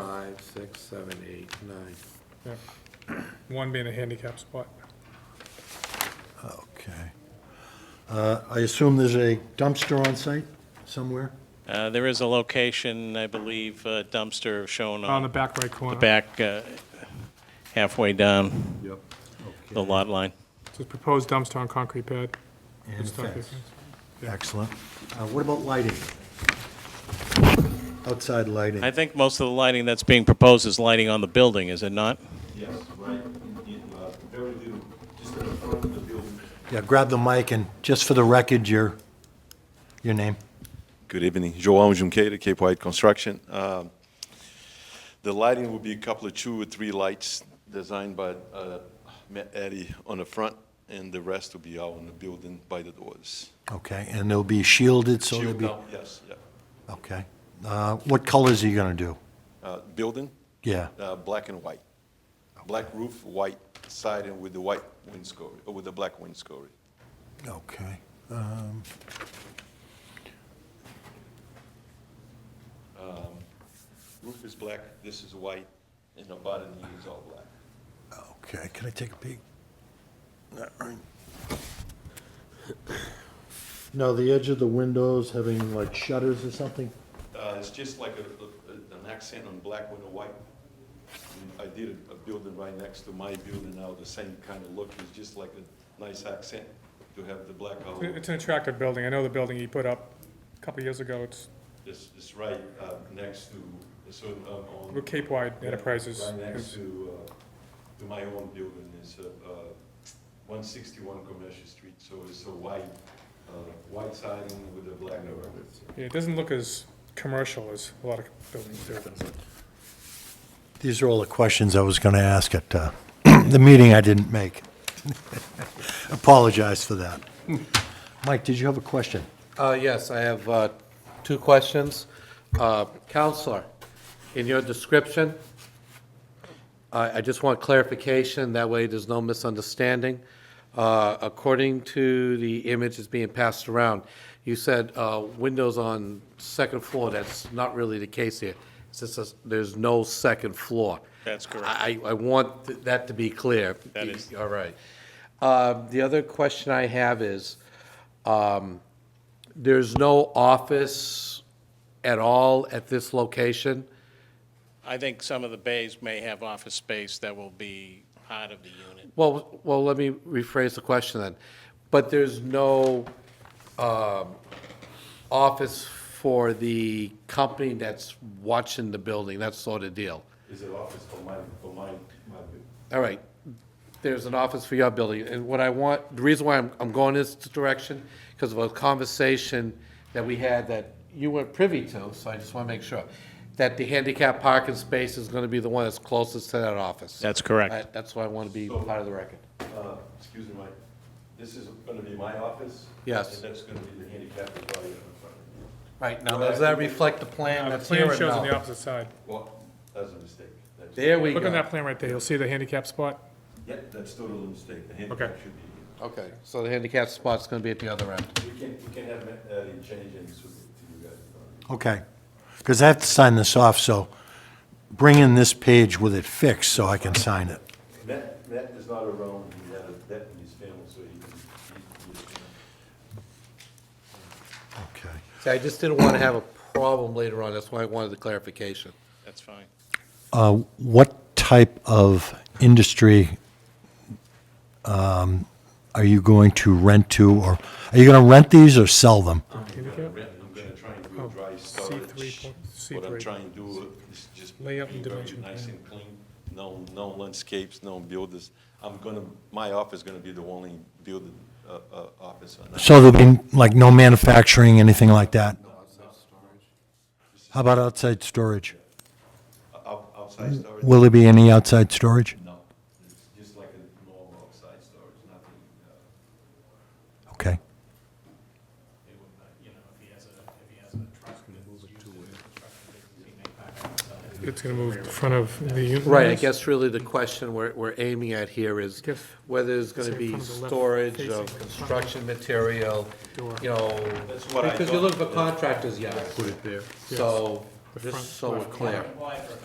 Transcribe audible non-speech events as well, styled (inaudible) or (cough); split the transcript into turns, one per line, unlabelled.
five, six, seven, eight, nine.
Yeah. One being a handicap spot.
Okay. Uh, I assume there's a dumpster on site somewhere?
Uh, There is a location, I believe, uh, dumpster
Oh.
shown
On the
on
back right corner.
the back, uh, halfway down
Yep.
the lot line.
It's a proposed dumpster on concrete pad.
And
It's not
fence.
different.
Excellent. Uh, What about lighting? Outside lighting?
I think most of the lighting that's being proposed is lighting on the building, is it not?
Yes, right, in, in, uh, compared to just in front of the building.
Yeah, grab the mic and, just for the record, your, your name?
Good evening, João Junqueira, Cape White Construction. Um, The lighting will be a couple of two or three lights designed by uh, Matt Eddy on the front, and the rest will be out on the building by the doors.
Okay, and they'll be shielded, so they'll
Shield
be...
down, Yes, yeah.
Okay. Uh, What colors are you going to do?
Uh, Building,
Yeah,
uh, black and white. Black roof, white siding with the white windscreen, with the black windscreen.
okay. Um,
Roof is black, this is white, and the bottom is all black.
Okay, can I take a peek? All right. Now, the edge of the windows having like shutters or something?
Uh, It's just like a- a- an accent on black with a white. And I did a- a building right next to my building now, the same kind of look, it's just like a nice accent to have the black out.
It's an attractive building. I know the building he put up a couple of years ago. It's,
It's it's right uh, next to, so um, on.
with Cape Wide Enterprises.
Right next
is-
to, uh, to my own building, it's uh, uh, 161 Commercial Street, so it's a white, uh, white siding with a black over it.
Yeah, it doesn't look as commercial as a lot of buildings do.
These are all the questions I was going to ask at uh, (clears throat) the meeting I didn't make. (laughs) Apologize for that. Mike, did you have a question?
Uh, Yes, I have uh, two questions. Uh, Counselor, in your description, I I just want clarification, that way there's no misunderstanding. Uh, According to the image that's being passed around, you said uh, windows on second floor, that's not really the case here. It's just a- there's no second floor.
That's correct.
I I want th- that to be clear.
That is-
All right. Uh, The other question I have is, um, there's no office at all at this location?
I think some of the bays may have office space that will be part of the unit.
Well, well, let me rephrase the question then. But there's no um, office for the company that's watching the building, that sort of deal?
Is it office for my, for my, my building?
All right, there's an office for your building, and what I want, the reason why I'm, I'm going this direction, because of a conversation that we had that you weren't privy to, so I just want to make sure, that the handicap parking space is going to be the one that's closest to that office.
That's correct.
I- That's why I want to be part of the record.
Uh, Excuse me, Mike, this is going to be my office?
Yes.
And that's going to be the handicap area in front of me.
Right, now, does that reflect the plan
Uh, The
that's here
plan
and
shows on the
now?
opposite side.
Well, that's a mistake. That's-
There we
Look on
go.
that plan right there. You'll see the handicap spot.
Yeah, that's totally a mistake. The handicap should be here.
Okay, so the handicap spot's going to be at the other end.
We can, we can have that uh, change and submit to you guys.
Okay, because I have to sign this off, so bring in this page with it fixed so I can sign it.
Matt, Matt is not around, he had a death in his family, so he, he- he,
Okay.
See, I just didn't want to have a problem later on, that's why I wanted the clarification.
That's fine.
Uh, What type of industry um, are you going to rent to, or are you going to rent these or sell them?
Oh,
Handicap?
I'm gonna try and do a dry
C3
storage.
Oh, point-
What I'm
C3.
trying to do is just.
Layout and
be very
dimension,
Nice
yeah.
and clean, no, no landscapes, no builders. I'm gonna, my office is gonna be the only building, uh, uh, office on that.
So there'll be, like, no manufacturing, anything like that? How about outside storage?
Out- Outside storage,
Will there be any outside storage?
no, it's just like a normal outside storage, nothing, uh,
Okay.
It's gonna move in front of the unit.
Right, I guess really the question we're, we're aiming at here is
Mm-hmm. Yes.
whether there's gonna
Say
be
from the left
storage
facing
of construction material,
Door.
you know,
That's what I
because you
thought.
look for contractors, yeah. Put it there. So,
The front
just so we're
left
clear.